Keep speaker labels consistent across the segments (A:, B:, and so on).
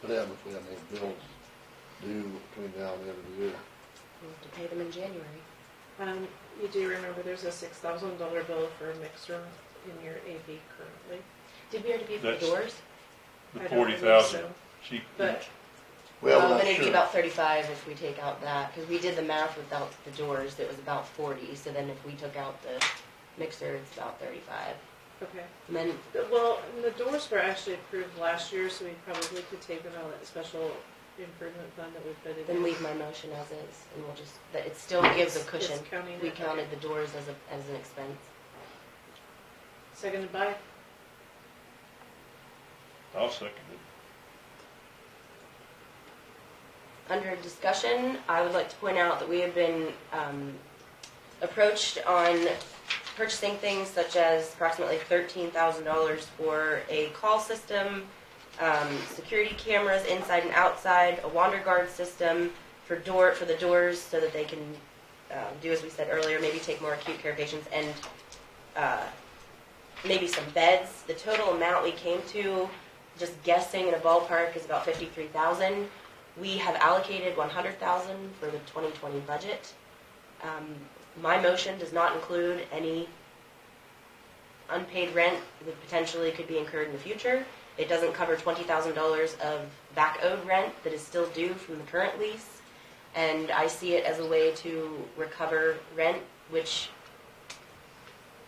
A: What happens if we have more bills due between now and the end of the year?
B: We'll have to pay them in January.
C: Um, you do remember there's a six thousand dollar bill for a mixer in your AV currently.
B: Did we already pay for the
D: That's-
B: doors?
D: The
C: I don't
D: forty
C: believe
D: thousand,
C: so,
D: she,
C: But
A: Well,
B: Um,
A: we're not
B: And it'd be
A: sure.
B: about thirty-five if we take out that, because we did the math without the doors, it was about forty, so then if we took out the mixer, it's about thirty-five.
C: okay.
B: And then,
C: Well, and the doors were actually approved last year, so we probably could take it out of that special improvement fund that we put it in.
B: then leave my motion as is, and we'll just, that it still gives a
C: It's-
B: cushion.
C: it's counting
B: We
C: it, okay.
B: counted the doors as a, as an expense.
C: Seconded by,
D: I'll second it.
B: Under discussion, I would like to point out that we have been um, approached on purchasing things such as approximately $13,000 for a call system, um, security cameras inside and outside, a wander guard system for door, for the doors so that they can uh, do as we said earlier, maybe take more acute care patients and uh, maybe some beds. The total amount we came to, just guessing in a ballpark, is about 53,000. We have allocated one hundred thousand for the twenty twenty budget. Um, my motion does not include any unpaid rent that potentially could be incurred in the future. It doesn't cover twenty thousand dollars of back owed rent that is still due from the current lease. And I see it as a way to recover rent, which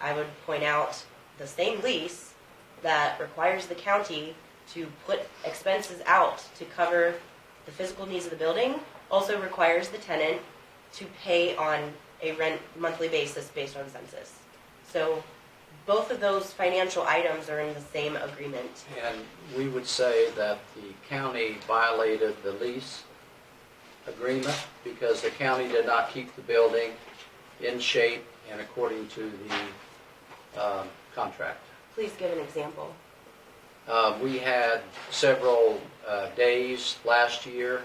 B: I would point out, the same lease that requires the county to put expenses out to cover the physical needs of the building also requires the tenant to pay on a rent monthly basis based on census. So both of those financial items are in the same agreement.
E: And we would say that the county violated the lease agreement because the county did not keep the building in shape and according to the um, contract.
B: Please give an example.
E: Uh, We had several uh, days last year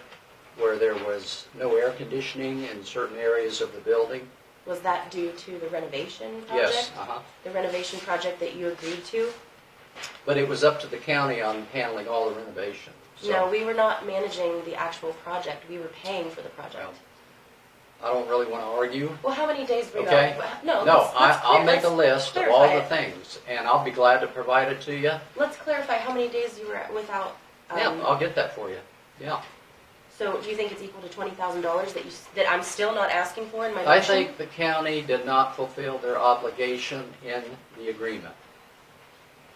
E: where there was no air conditioning in certain areas of the building.
B: Was that due to the renovation project?
E: Yes, uh-huh.
B: The renovation project that you agreed to?
E: But it was up to the county on handling all the renovation. so-
B: No, we were not managing the actual project. We were paying for the project.
E: Well, I don't really want to argue.
B: Well, how many days were you
E: Okay.
B: out? No,
E: No,
B: let's-
E: I,
B: let's
E: I'll
B: clear- Um,
E: make a
B: let's
E: list of all the
B: clarify it.
E: things, and I'll be glad to provide it to you.
B: Let's clarify how many days you were at without. Um,
E: Yeah, I'll get that for you. Yeah.
B: So do you think it's equal to twenty thousand dollars that you s- that I'm still not asking for in my
E: I
B: motion?
E: think the county did not fulfill their obligation in the agreement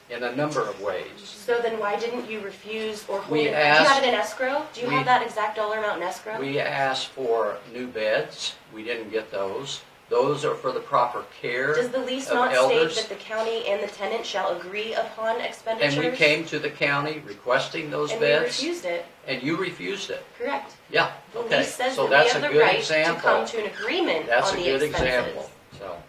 E: in a number of ways.
B: So then why didn't you refuse or hold
E: We
B: it? do you have
E: asked-
B: it in escrow? Do you
E: we-
B: have that exact dollar amount in escrow?
E: We asked for new beds. We didn't get those. Those are for the proper care
B: Does the lease
E: of
B: not
E: elders.
B: state that the county and the tenant shall agree upon expenditures?
E: And we came to the county requesting those
B: And we
E: beds,
B: refused it.
E: and you refused it.
B: Correct.
E: Yeah,
B: The
E: okay.
B: lease says
E: So
B: that we
E: that's a
B: have the
E: good
B: right
E: example.
B: to come to an agreement
E: That's a
B: on the
E: good
B: expenses.
E: example, so.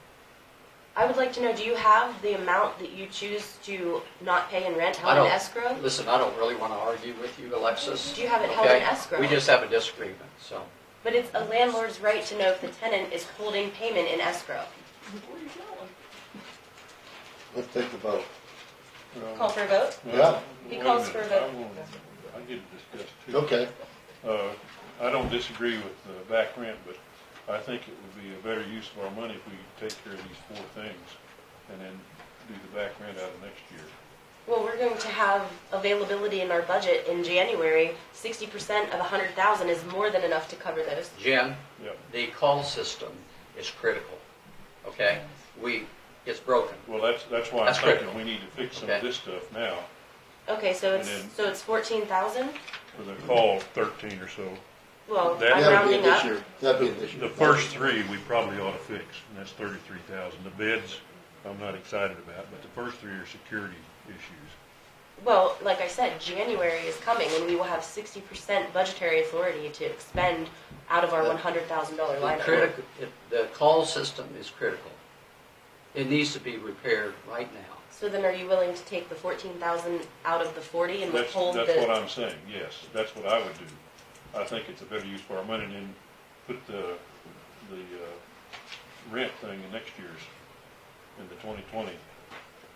B: I would like to know, do you have the amount that you choose to not pay in rent
E: I
B: held
E: don't-
B: in escrow?
E: Listen, I don't really want to argue with you, Alexis.
B: Do you have it held in
E: okay?
B: escrow?
E: We just have a disagreement, so.
B: But it's a landlord's right to know if the tenant is holding payment in escrow.
A: Let's take the vote.
D: Um,
B: Call for a vote?
A: Yeah.
B: He
D: wait a
B: calls for a
D: minute. I
B: vote.
D: wanna- I did discuss too.
A: Okay,
D: Uh, I don't disagree with the back rent, but I think it would be a better use of our money if we take care of these four things and then do the back rent out of next year.
B: Well, we're going to have availability in our budget in January. Sixty percent of a hundred thousand is more than enough to cover those.
E: Jim,
D: Yep.
E: the call system is critical, okay?
B: Mm.
E: We, it's broken.
D: Well, that's, that's why I'm
E: That's
D: thinking
E: critical.
D: we need to fix some of
E: Okay.
D: this stuff now
B: Okay, so it's,
D: And then-
B: so it's fourteen thousand?
D: for the call thirteen or so.
B: Well,
D: That-
B: I'm
A: that'd be it
B: rounding
A: this
B: up.
A: year, that'd be it this year.
D: The first three we probably ought to fix, and that's thirty-three thousand. The beds, I'm not excited about, but the first three are security issues.
B: Well, like I said, January is coming and we will have sixty percent budgetary authority to expend out of our
E: The-
B: one hundred thousand dollar
E: The
B: line item.
E: critical, the call system is critical. It needs to be repaired right now.
B: So then are you willing to take the fourteen thousand out of the forty and
D: That's,
B: withhold the?
D: that's what I'm saying, yes, that's what I would do. I think it's a better use for our money than put the, the, uh, rent thing in next year's, in the twenty twenty